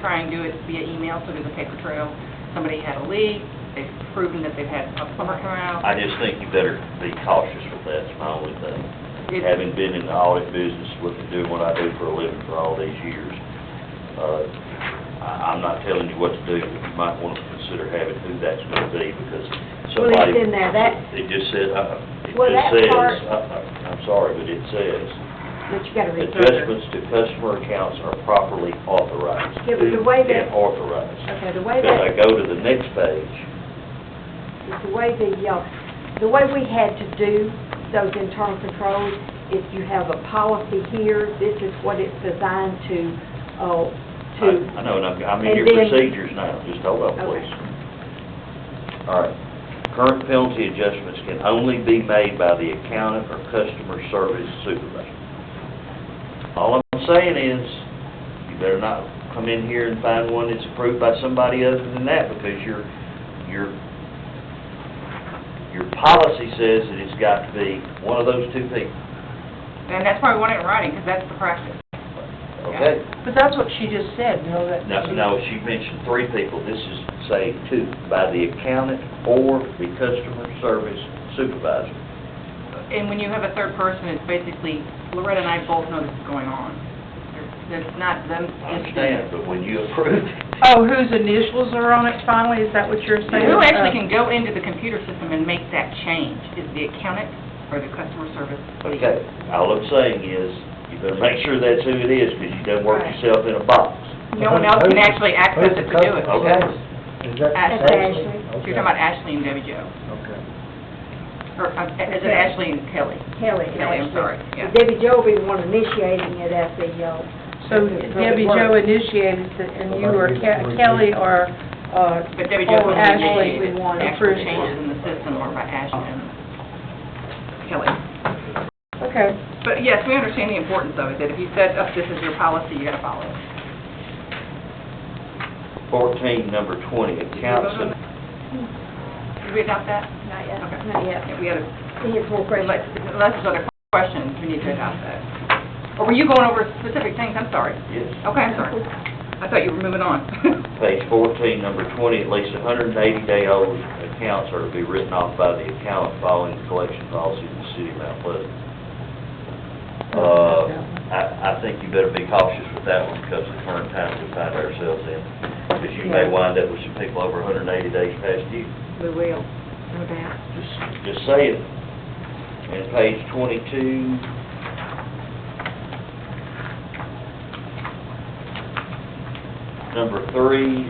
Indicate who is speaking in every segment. Speaker 1: try and do it via email, so there's a paper trail. Somebody had a leak, they've proven that they've had a plumber come out.
Speaker 2: I just think you better be cautious with that, it's my only thing.
Speaker 1: It's-
Speaker 2: Having been in the audit business, with doing what I do for a living for all these years, uh, I, I'm not telling you what to do, but you might want to consider having who that's going to be, because
Speaker 3: Well,
Speaker 2: somebody...
Speaker 3: it's in there, that,
Speaker 2: It just said, uh, it
Speaker 3: Well,
Speaker 2: just
Speaker 3: that
Speaker 2: says,
Speaker 3: part-
Speaker 2: uh, uh, I'm sorry, but it says,
Speaker 3: that you gotta read through.
Speaker 2: adjustments to customer accounts are properly authorized.
Speaker 3: Yeah, but the way
Speaker 2: And
Speaker 3: that-
Speaker 2: authorized.
Speaker 3: Okay, the way
Speaker 2: Because I
Speaker 3: that,
Speaker 2: go to the next page,
Speaker 3: the way the, uh, the way we had to do those internal controls, if you have a policy here, this is what it's designed to, uh,
Speaker 2: I
Speaker 3: to,
Speaker 2: I know, and I'm, I'm in
Speaker 3: And
Speaker 2: your
Speaker 3: then-
Speaker 2: procedures now, just hold on,
Speaker 3: Okay.
Speaker 2: please. All right. Current penalty adjustments can only be made by the accountant or customer service supervisor. All I'm saying is, you better not come in here and find one that's approved by somebody other than that, because your, your, your policy says that it's got to be one of those two people,
Speaker 1: And that's why we want it in writing, because that's the practice.
Speaker 2: okay?
Speaker 4: But that's what she just said, you know, that.
Speaker 2: No, no, she mentioned three people, this is, say, two, by the accountant or the customer service supervisor.
Speaker 1: And when you have a third person, it's basically, Loretta and I both know this is going on. It's not them.
Speaker 2: I understand, but when you approve, it,
Speaker 4: Oh, whose initials are on it finally, is that what you're saying? uh,
Speaker 1: Who actually can go into the computer system and make that change? Is the accountant or the customer service lead?
Speaker 2: okay, all I'm saying is, you better make sure that's who it is, because you don't work
Speaker 1: Right.
Speaker 2: yourself in a box.
Speaker 1: No one else can actually access it to do it.
Speaker 2: customer? Okay.
Speaker 5: Is that
Speaker 1: That's
Speaker 5: Ashley?
Speaker 3: Ashley.
Speaker 1: You're talking about Ashley and Debbie Jo,
Speaker 5: Okay.
Speaker 1: or uh, is it Ashley and Kelly?
Speaker 3: Kelly,
Speaker 1: Kelly, I'm
Speaker 3: actually.
Speaker 1: sorry, yeah.
Speaker 3: Debbie Jo will be the one initiating it at the, uh,
Speaker 4: So Debbie Jo initiated it, and you or Ke- Kelly or, uh,
Speaker 1: But Debbie Jo
Speaker 4: or
Speaker 1: would
Speaker 4: Ashley.
Speaker 1: initiate
Speaker 3: we
Speaker 1: it. The
Speaker 3: want
Speaker 1: actual
Speaker 4: approved.
Speaker 1: changes in the system or by Ashley and Kelly.
Speaker 4: Okay.
Speaker 1: But yes, we understand the importance of it, that if you set up this as your policy, you gotta follow it.
Speaker 2: Fourteen, number twenty, accounts and
Speaker 1: Did we adopt that?
Speaker 3: not yet,
Speaker 1: Okay.
Speaker 3: not yet.
Speaker 1: Yeah, We had,
Speaker 3: He has more questions.
Speaker 1: unless unless there's other questions, we need to adopt that. Or were you going over specific things? I'm sorry.
Speaker 2: yes.
Speaker 1: Okay, I'm sorry. I thought you were moving on.
Speaker 2: Page fourteen, number twenty, at least hundred and eighty day old accounts are to be written off by the accountant following the collection policy of the city of Mount Pleasant. Uh, I, I think you better be cautious with that one because of the current times we find ourselves in. Because you may wind up with some people over hundred and eighty days past due.
Speaker 1: We will, no doubt.
Speaker 2: Just, just say it. And page twenty-two. Number three,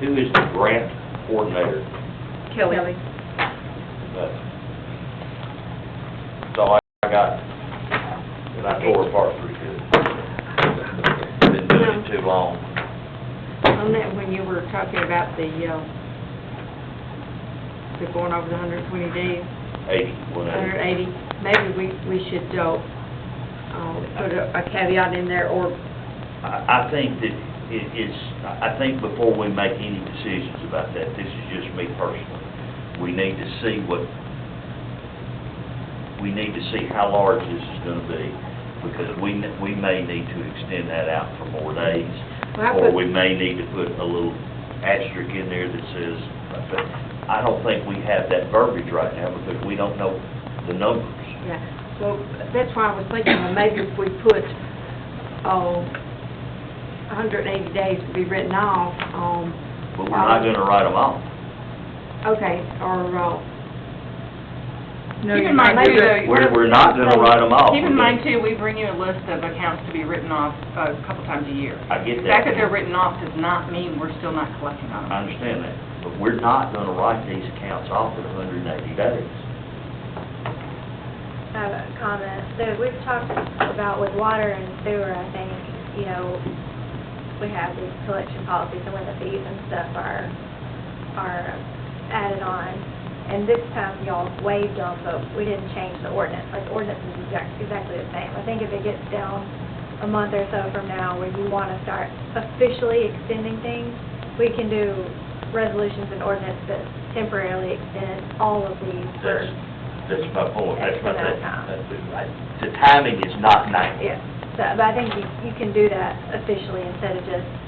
Speaker 2: who is the grant coordinator?
Speaker 1: Kelly.
Speaker 2: That's that's all I got, and I tore apart pretty good. Been doing it too long.
Speaker 1: On that, when you were talking about the, uh, the going over the hundred and twenty days,
Speaker 2: Eighty, one
Speaker 3: hundred
Speaker 2: eighty.
Speaker 3: eighty, maybe we, we should, uh, uh, put a a caveat in there, or
Speaker 2: I, I think that it is, I I think before we make any decisions about that, this is just me personally, we need to see what, we need to see how large this is gonna be, because we, n- we may need to extend that out for more days,
Speaker 3: Well, I
Speaker 2: or
Speaker 3: put-
Speaker 2: we may need to put a little asterisk in there that says, but I don't think we have that verbiage right now, because we don't know the numbers.
Speaker 3: Yeah, well, that's why I was thinking, well, maybe if we put, uh, hundred and eighty days to be written off, um,
Speaker 2: But we're not gonna write them off.
Speaker 3: okay, or, uh,
Speaker 4: No,
Speaker 1: Keep in
Speaker 4: you-
Speaker 1: mind, too, though,
Speaker 2: We're, we're not gonna write them off.
Speaker 1: Keep in mind too, we bring you a list of accounts to be written off uh, a couple times a year.
Speaker 2: I get
Speaker 1: The
Speaker 2: that.
Speaker 1: fact that they're written off does not mean we're still not collecting on
Speaker 2: I
Speaker 1: them.
Speaker 2: understand that, but we're not gonna write these accounts off in hundred and eighty days.
Speaker 6: have a comment. There, we've talked about with water and sewer, I think, you know, we have these collection policies and when the fees and stuff are, are added on. And this time y'all waived them, but we didn't change the ordinance. Like the ordinance is exact- exactly the same. I think if it gets down a month or so from now where you want to start officially extending things, we can do resolutions and ordinance that temporarily extend all of these for
Speaker 2: That's, that's my point, that's my
Speaker 6: That's
Speaker 2: thing.
Speaker 6: enough.
Speaker 2: That's it, right. The timing is not now.
Speaker 6: Yeah, so, but I think you, you can do that officially instead of just